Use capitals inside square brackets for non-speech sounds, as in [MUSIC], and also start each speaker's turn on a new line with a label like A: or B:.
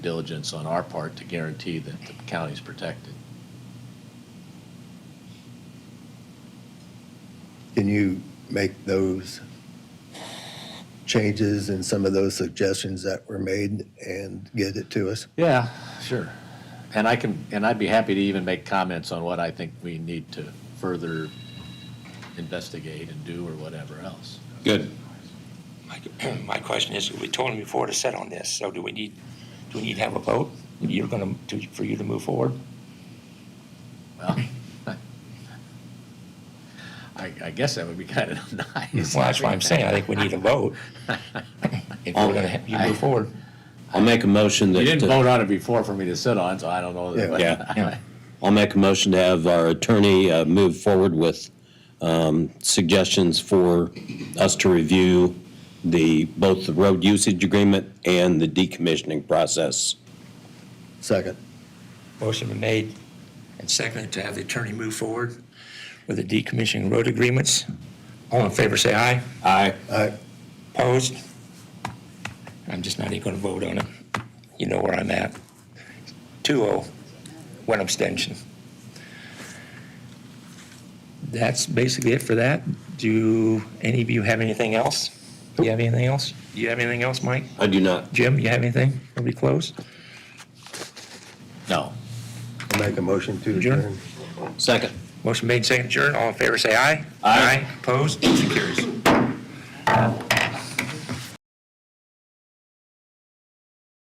A: diligence on our part to guarantee that the county's protected.
B: Can you make those changes and some of those suggestions that were made and get it to us?
A: Yeah, sure. And I can, and I'd be happy to even make comments on what I think we need to further investigate and do or whatever else.
C: Good.
D: My- [CLEARS THROAT] My question is, we told him before to set on this, so do we need, do we need to have a vote? You're going to, for you to move forward?
A: Well, [LAUGHS] I, I guess that would be kind of [LAUGHS] nice.
D: Well, that's what I'm saying, I think we need a vote. If we're going to, you move forward.
C: I'll make a motion
A: You didn't
C: that,
A: vote on it before for me to sit on, so I don't know. that-
C: Yeah.
A: [LAUGHS]
D: Yeah.
C: I'll make a motion to have our attorney uh, move forward with um, suggestions for us to review the, both the road usage agreement and the decommissioning process.
B: Second.
D: Motion been made and seconded to have the attorney move forward with the decommissioning road agreements. All in favor, say aye.
C: Aye.
B: I,
D: Opposed? I'm just not even going to vote on it. You know where I'm at. 2-0, one abstention. That's basically it for that. Do any of you have anything else? Do you have anything else? Do you have anything else, Mike?
C: I do not.
D: Jim, you have anything? Are we closed?
A: No.
B: I make a motion to
D: Adjourn.
B: adjourn.
C: Second.
D: Motion made, second adjourned. All in favor, say aye.
C: Aye.
D: Opposed? Motion carries.